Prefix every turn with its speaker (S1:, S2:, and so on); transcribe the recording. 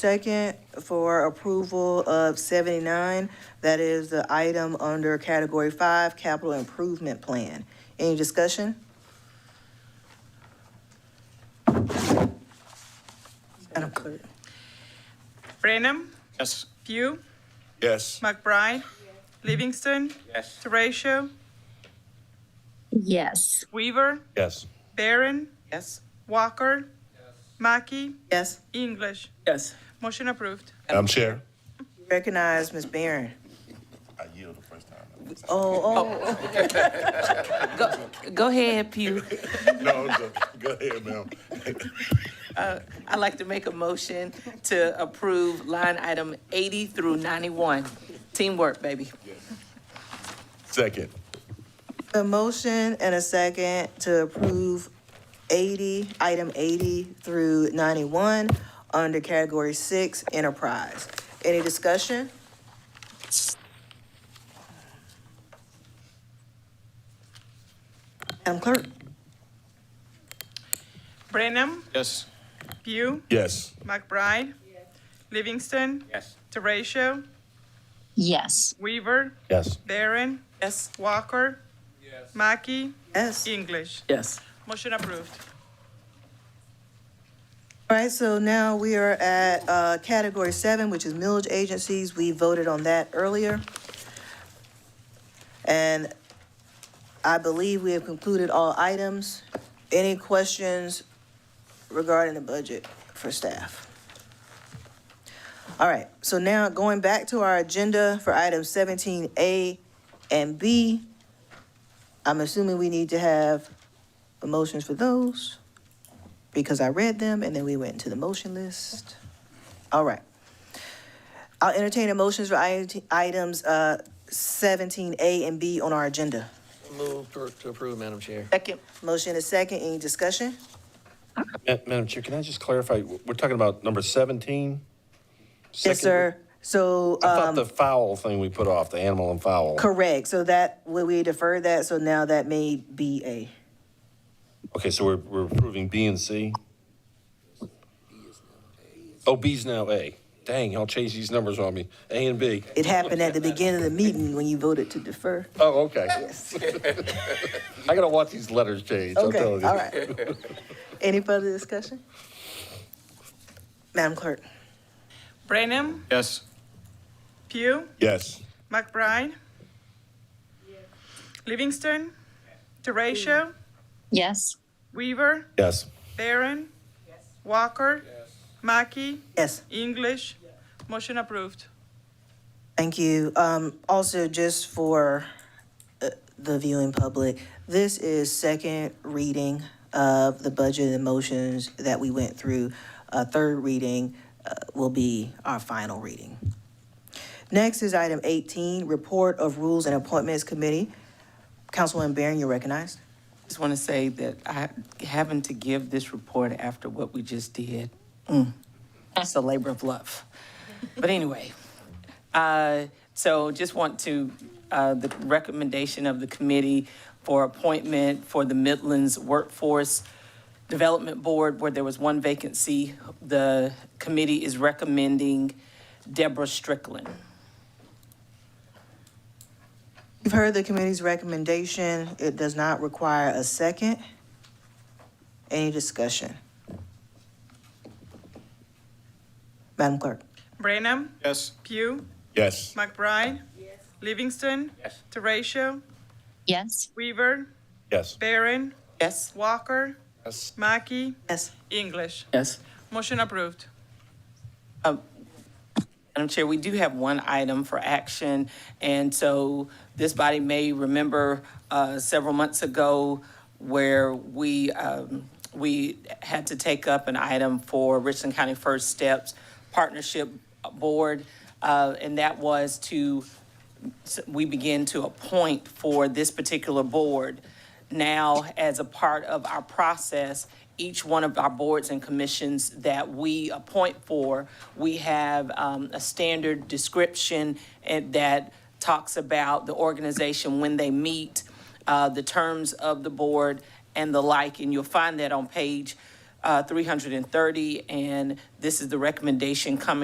S1: Second, for approval of seventy-nine, that is the item under category five, capital improvement plan. Any discussion? Madam Clerk.
S2: Brenham,
S3: Yes.
S2: Pugh,
S3: Yes.
S2: McBride, Livingston,
S3: Yes.
S2: Teratio,
S4: yes,
S2: Weaver,
S3: Yes.
S2: Barron. Yes. Walker. Mackey,
S1: Yes,
S2: English.
S5: Yes.
S2: Motion approved.
S3: Madam Chair.
S1: recognize Ms. Barron.
S3: I yield the first time.
S1: Oh, oh,
S5: Go ahead, Pew.
S3: No, I'm joking. go ahead, ma'am.
S5: I'd like to make a motion to approve line item 80 through 91. Teamwork, baby.
S3: Second.
S1: a motion and a second to approve eighty, item eighty through ninety-one under category six, enterprise. Any discussion? Madam Clerk?
S2: Brenham,
S3: Yes.
S2: Pugh,
S3: Yes.
S2: McBride, Livingston,
S3: Yes.
S2: Teratio,
S4: yes,
S2: Weaver,
S3: Yes.
S2: Barron. Yes. Walker. Yes. Mackey,
S1: Yes.
S2: English.
S5: Yes.
S2: Motion approved.
S1: All right, so now we are at uh, category seven, which is millage agencies. We voted on that earlier. And I believe we have concluded all items. Any questions regarding the budget for staff? All right, so now going back to our agenda for items seventeen A and B, I'm assuming we need to have motions for those because I read them and then we went into the motion list. All right. I'll entertain the motions for IT items uh, 17A and B on our agenda.
S6: Move to to approve, Madam Chair.
S5: Second.
S1: Motion is second, any discussion?
S3: Uh, Madam Chair, can I just clarify? We're talking about number 17?
S1: Yes, sir. So,
S3: I thought the
S1: um,
S3: foul thing we put off, the animal and foul.
S1: correct, so that, we- we deferred that, so now that may be a,
S3: Okay, so we're, we're approving B and C? Oh, B's now A. Dang, y'all changed these numbers on me. A and B.
S1: it happened at the beginning of the meeting when you voted to defer.
S3: Oh, okay. I gotta watch these letters change, I'm
S1: Okay, all
S3: telling you.
S1: right. Any further discussion? Madam Clerk?
S2: Brenham,
S3: Yes.
S2: Pugh,
S3: Yes.
S2: McBride. Livingston, Teratio,
S4: yes,
S2: Weaver,
S3: Yes.
S2: Barron. Walker. Mackey,
S1: Yes.
S2: English. Motion approved.
S1: Thank you. Um, also, just for uh, the viewing public, this is second reading of the budget and motions that we went through. Uh, third reading, uh, will be our final reading. Next is item eighteen, report of rules and appointments committee. Councilwoman Barron, you're recognized.
S5: Just want to say that I, having to give this report after what we just did, mm, it's a labor of love. But anyway, uh, so just want to, uh, the recommendation of the committee for appointment for the Midlands Workforce Development Board, where there was one vacancy, the committee is recommending Deborah Strickland.
S1: You've heard the committee's recommendation. It does not require a second. Any discussion? Madam Clerk?
S2: Brenham,
S3: Yes.
S2: Pugh,
S3: Yes.
S2: McBride. Livingston.
S3: Yes.
S2: Teratio,
S4: yes,
S2: Weaver,
S3: Yes.
S2: Barron,
S5: Yes?
S2: Walker,
S3: Yes.
S2: Mackey,
S1: Yes.
S2: English.
S5: Yes.
S2: Motion approved.
S5: Madam Chair, we do have one item for action, and so this body may remember uh, several months ago where we, um, we had to take up an item for Richland County First Steps Partnership Board, uh, and that was to s- we begin to appoint for this particular board. Now, as a part of our process, each one of our boards and commissions that we appoint for, we have um, a standard description and that talks about the organization, when they meet, uh, the terms of the board, and the like. And you'll find that on page uh, 330, and this is the recommendation coming